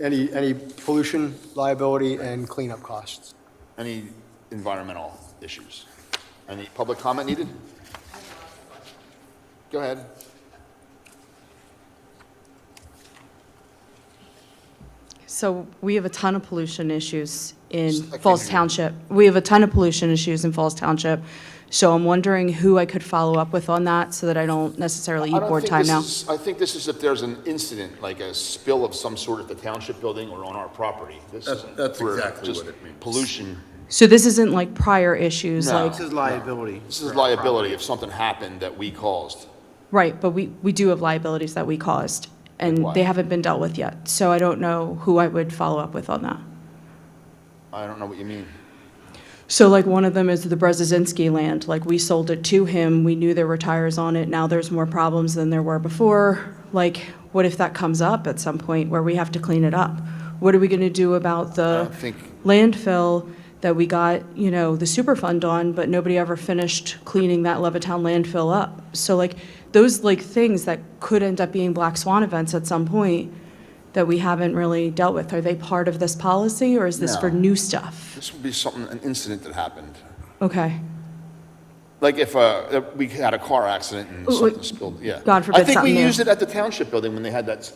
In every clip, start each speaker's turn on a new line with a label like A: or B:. A: any, any pollution liability and cleanup costs.
B: Any environmental issues? Any public comment needed? Go ahead.
C: So we have a ton of pollution issues in
B: Second.
C: Falls Township. We have a ton of pollution issues in Falls Township. So I'm wondering who I could follow up with on that so that I don't necessarily
B: I
C: eat
B: don't
C: board
B: think
C: time
B: this
C: now.
B: is- I think this is if there's an incident, like a spill of some sort at the township building or on our property. This
D: That's-
B: isn't
D: that's
B: for
D: exactly
B: just
D: what it means.
B: Pollution.
C: So this isn't like prior issues,
B: No.
C: like,
E: This is liability.
B: This is liability if something happened that we caused.
C: right, but we, we do have liabilities that we caused and
B: what?
C: they haven't been dealt with yet. So I don't know who I would follow up with on that.
B: I don't know what you mean.
C: So like one of them is the Brezezinski land, like we sold it to him, we knew there were tires on it, now there's more problems than there were before. Like, what if that comes up at some point where we have to clean it up? What are we gonna do about the
B: don't think-
C: landfill that we got, you know, the Superfund on, but nobody ever finished cleaning that Levittown landfill up? So like, those like things that could end up being black swan events at some point that we haven't really dealt with, are they part of this policy or is this for
B: No.
C: new stuff?
B: This would be something, an incident that happened.
C: Okay.
B: Like if, uh, if we had a car accident and
C: Ooh,
B: something
C: wait.
B: spilled, yeah.
C: God
B: I
C: forbid
B: think
C: something
B: we
C: new.
B: used it at the township building when they had that. s-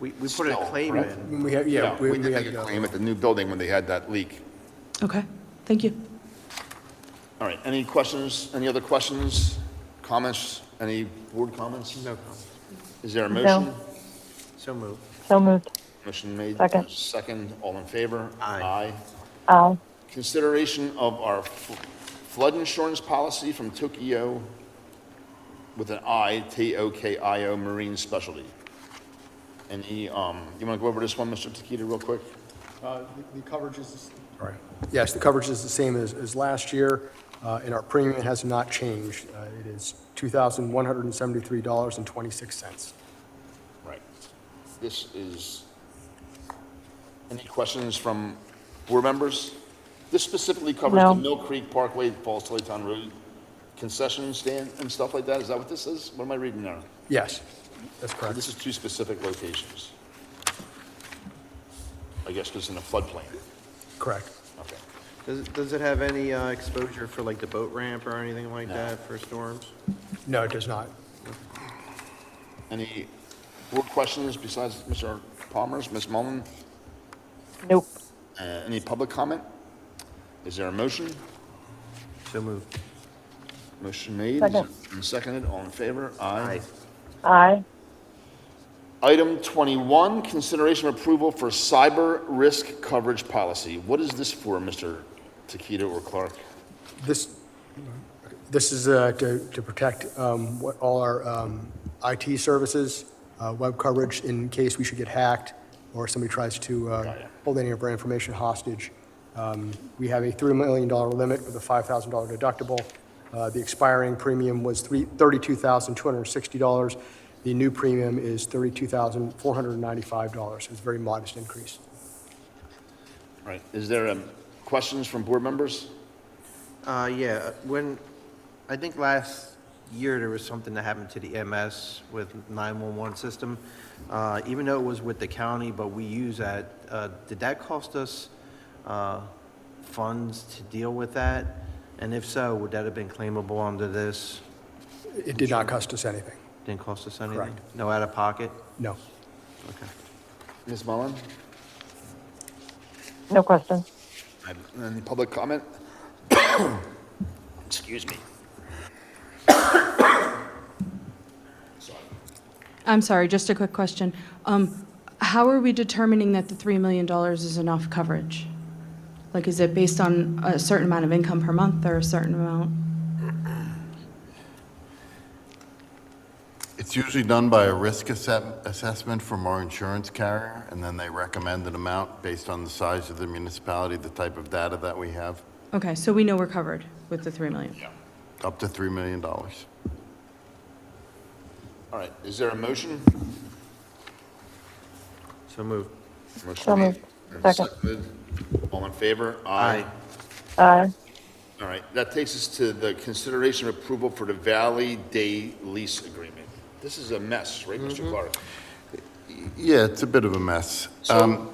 E: We, we put a
B: Still,
E: claim
B: right.
E: in.
A: We have, yeah.
B: We did
A: have
B: make a claim at the new building when they had that leak.
C: Okay, thank you.
B: All right, any questions, any other questions, comments, any board comments?
E: No comment.
B: Is there a
F: No.
B: motion?
E: So moved.
F: So moved.
B: Motion made.
F: Second.
B: Second, all in favor?
E: Aye.
F: Aye.
B: Consideration of our f- flood insurance policy from Tokyo with an I, T-O-K-I-O Marine Specialty. And he, um, you want to go over this one, Mr. Tequita, real quick?
A: Uh, The the coverage is, sorry. Yes, the coverage is the same as, as last year, uh, and our premium has not changed. Uh, It is $2,173.26.
B: Right. This is, any questions from board members? This specifically covers
F: No.
B: the Mill Creek Parkway, Falls Tilly Town Road concession stand and stuff like that? Is that what this is? What am I reading now?
A: Yes, that's correct.
B: This is two specific locations. I guess because in a floodplain.
A: Correct.
B: Okay.
E: Does, it- does it have any uh, exposure for like the boat ramp or anything like that for storms?
A: No, it does not.
B: Any board questions besides Mr. Palmer's, Ms. Mullen?
F: Nope.
B: Uh, Any public comment? Is there a motion?
E: So moved.
B: Motion made
F: Second.
B: and seconded, all in favor? Aye.
F: Aye.
B: Item 21, consideration of approval for cyber risk coverage policy. What is this for, Mr. Tequita or Clark?
A: This, this is uh, to, to protect um, what, all our um, IT services, uh, web coverage in case we should get hacked or somebody tries to uh,
B: it.
A: hold any of our information hostage. Um, We have a $3 million limit with a $5,000 deductible. Uh, The expiring premium was three- $32,260. The new premium is $32,495. It's a very modest increase.
B: All Right, is there um, questions from board members?
E: Uh, yeah, when, I think last year there was something that happened to the MS with 911 system. Uh, even though it was with the county, but we use that, uh, did that cost us, uh, funds to deal with that? And if so, would that have been claimable under this?
A: It did not cost us anything,
E: Didn't cost us anything?
A: Correct.
E: No out of pocket?
A: no.
E: Okay.
B: Ms. Mullen?
F: No question.
B: Any public comment? Excuse me.
C: I'm sorry, just a quick question. Um, How are we determining that the $3 million is enough coverage? Like, is it based on a certain amount of income per month or a certain amount?
G: It's usually done by a risk assess- assessment from our insurance carrier, and then they recommend an amount based on the size of the municipality, the type of data that we have,
C: Okay, so we know we're covered with the 3 million.
G: up to $3 million.
B: All right, is there a motion?
E: So moved.
B: Motion
F: So
B: made.
F: moved.
B: and
F: Second.
B: seconded. All in favor?
F: Aye.
B: All right, that takes us to the consideration of approval for the Valley Day lease agreement. This is a mess, right, Mr. Clark?
G: Yeah, it's a bit of a mess. Um,